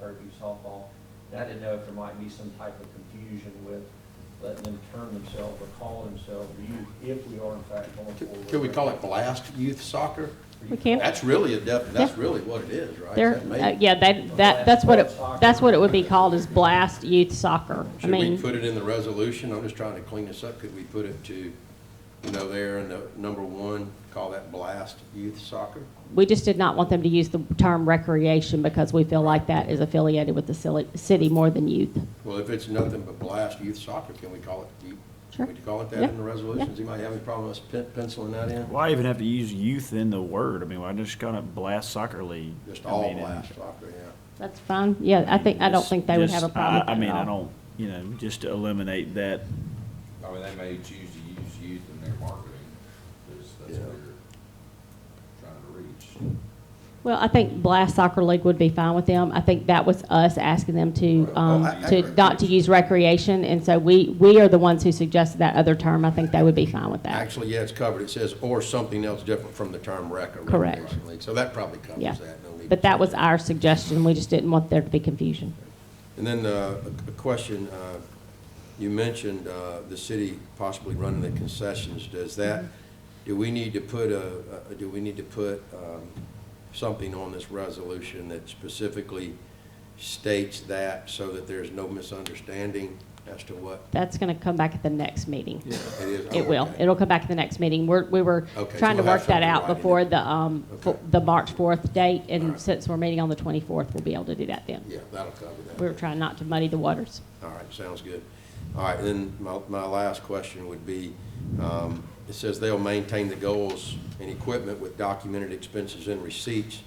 Fairview softball. And I didn't know if there might be some type of confusion with letting them term themselves or call themselves youth if we are in fact going forward. Could we call it blast youth soccer? We can. That's really a def, that's Yeah. really what it is, right? There, Is that made- uh, yeah, that, that, that's what it, that's what it would be called is blast youth soccer. I Should we mean, put it in the resolution? I'm just trying to clean this up. Could we put it to, you know, there in the number one, call that blast youth soccer? we just did not want them to use the term recreation because we feel like that is affiliated with the cili- city more than youth. Well, if it's nothing but blast youth soccer, can we call it, youth- Sure. can we call it that Yeah. in the resolution? Does anybody have any problem with us pen- penciling that in? Why even have to use youth in the word? I mean, why just kind of blast soccer league? Just I all mean, and- blast soccer, yeah. That's fine. Yeah, I think, I don't Just- think they would have a just- problem with I- that at I mean, I all. don't, you know, just to eliminate that, I mean, they may choose to use youth in their marketing, because that's Yeah. what you're trying to reach. Well, I think blast soccer league would be fine with them. I think that was us asking them to, Well, um, I- I to, agree. not to use recreation. And so we, we are the ones who suggested that other term. I think they would be fine with that. Actually, yeah, it's covered. It says, or something else different from the term rec or Correct. recreation league. So that probably covers Yeah. that. No need to But that change was it. our suggestion. We just didn't want there to be confusion. And then uh, a a question, uh, you mentioned uh, the city possibly running the concessions. Does that, Mm-hmm. do we need to put a, a- do we need to put um, something on this resolution that specifically states that so that there's no misunderstanding as to what That's going to come back at the next meeting. it is? It will. Oh, Okay. It'll come back at the next meeting. We're, we were Okay, so trying to we'll have work that something out right in before it. the, um, fo- Okay. the March 4th date, All and right. since we're meeting on the 24th, we'll be able to do that then. Yeah, that'll cover that. We were trying not to muddy the waters. All right, sounds good. All right, then my, my last question would be, um, it says they'll maintain the goals and equipment with documented expenses and receipts.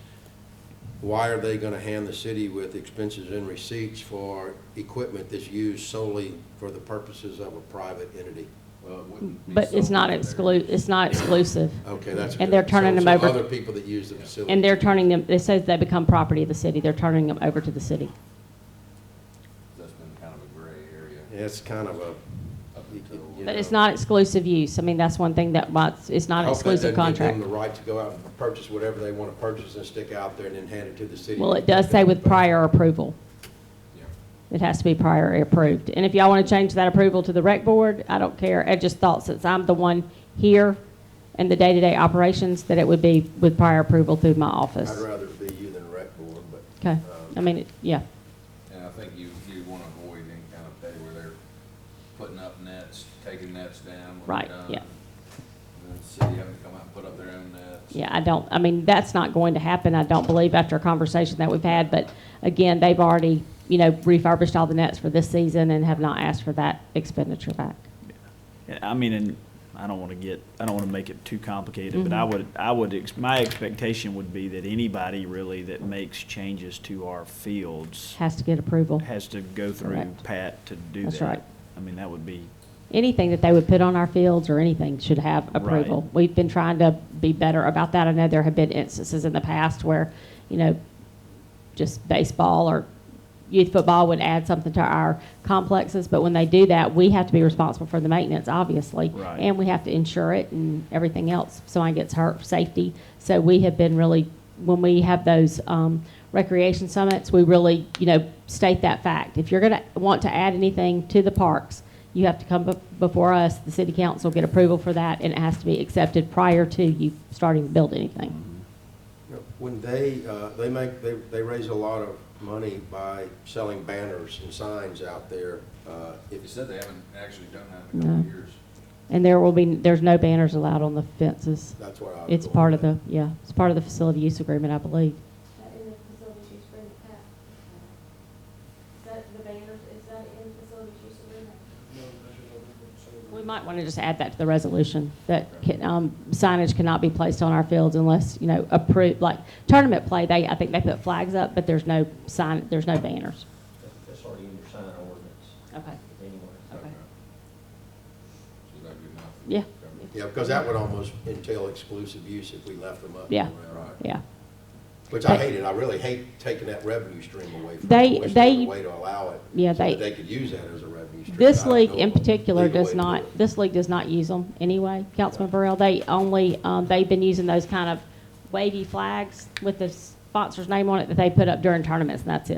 Why are they gonna hand the city with expenses and receipts for equipment that's used solely for the purposes of a private entity? Well, it wouldn't be But it's something not that they're- exclu, it's not exclusive. Okay, that's. And they're good. turning So- them over- So other people that use the facility. And they're turning them, it says they become property of the city. They're turning them over to the city. That's been kind of a gray area. Yeah, It's kind of a. Up until- you But it's know. not exclusive use. I mean, that's one thing that, why it's- it's not an I hope that exclusive doesn't give contract. them the right to go out and purchase whatever they wanna purchase and stick out there and then hand it to the city. Well, it does say with prior approval. Yeah. It has to be prior approved. And if y'all want to change that approval to the rec board, I don't care. I just thought since I'm the one here in the day-to-day operations, that it would be with prior approval through my office. I'd rather it be you than rec board, but. Okay, um, I mean, it- yeah, And I think you, you want to avoid any kind of day where they're putting up nets, taking nets down. when they're Right, done, yeah. And the city having to come out and put up their own nets. yeah, I don't, I mean, that's not going to happen, I don't believe, after a conversation that we've had. But again, they've already, you know, refurbished all the nets for this season and have not asked for that expenditure back. and I mean, and I don't want to get, I don't want to make it too complicated, but I Mm-hmm. would, I would, ex- my expectation would be that anybody really that makes changes to our fields Has to get approval. has to go through Correct. Pat to do that. That's right. I mean, that would be, anything that they would put on our fields or anything should have approval. Right. We've been trying to be better about that. I know there have been instances in the past where, you know, just baseball or youth football would add something to our complexes, but when they do that, we have to be responsible for the maintenance, obviously. Right. And we have to insure it and everything else. If someone gets hurt, safety. So we have been really, when we have those um, recreation summits, we really, you know, state that fact. If you're going to want to add anything to the parks, you have to come bef- before us, the city council, get approval for that, and it has to be accepted prior to you starting to build anything. you know, When they, uh, they make, they, they raise a lot of money by selling banners and signs out there. Uh, If if you it's- said they haven't actually done that in a couple No. of years. And there will be, there's no banners allowed on the fences. That's what I. was It's going part of with. the, yeah, it's part of the facility use agreement, I believe. That in the facilities use agreement, Pat? Is that the banners, is that in facilities use agreement? We might want to just add that to the resolution, that can- um, signage cannot be placed on our fields unless, you know, approved, like tournament play, they, I think they put flags up, but there's no sign, there's no banners. That's already in your sign ordinance Okay. anyway. Okay. So that'd be enough. Yeah. Yeah, because that would almost entail exclusive use if we left them up. Yeah. Right. Yeah. Which I hated. I really hate taking that revenue stream away from them. They- I wish there was they- a Way to allow it. Yeah, so that they- They could use that as a revenue stream. I This don't league know in of a particular legal way does to do not, it. this league does not use them anyway, Councilman Burrell. They only, um, they've been using those kind of wavy flags with the sponsor's name on it that they put up during tournaments, and that's it.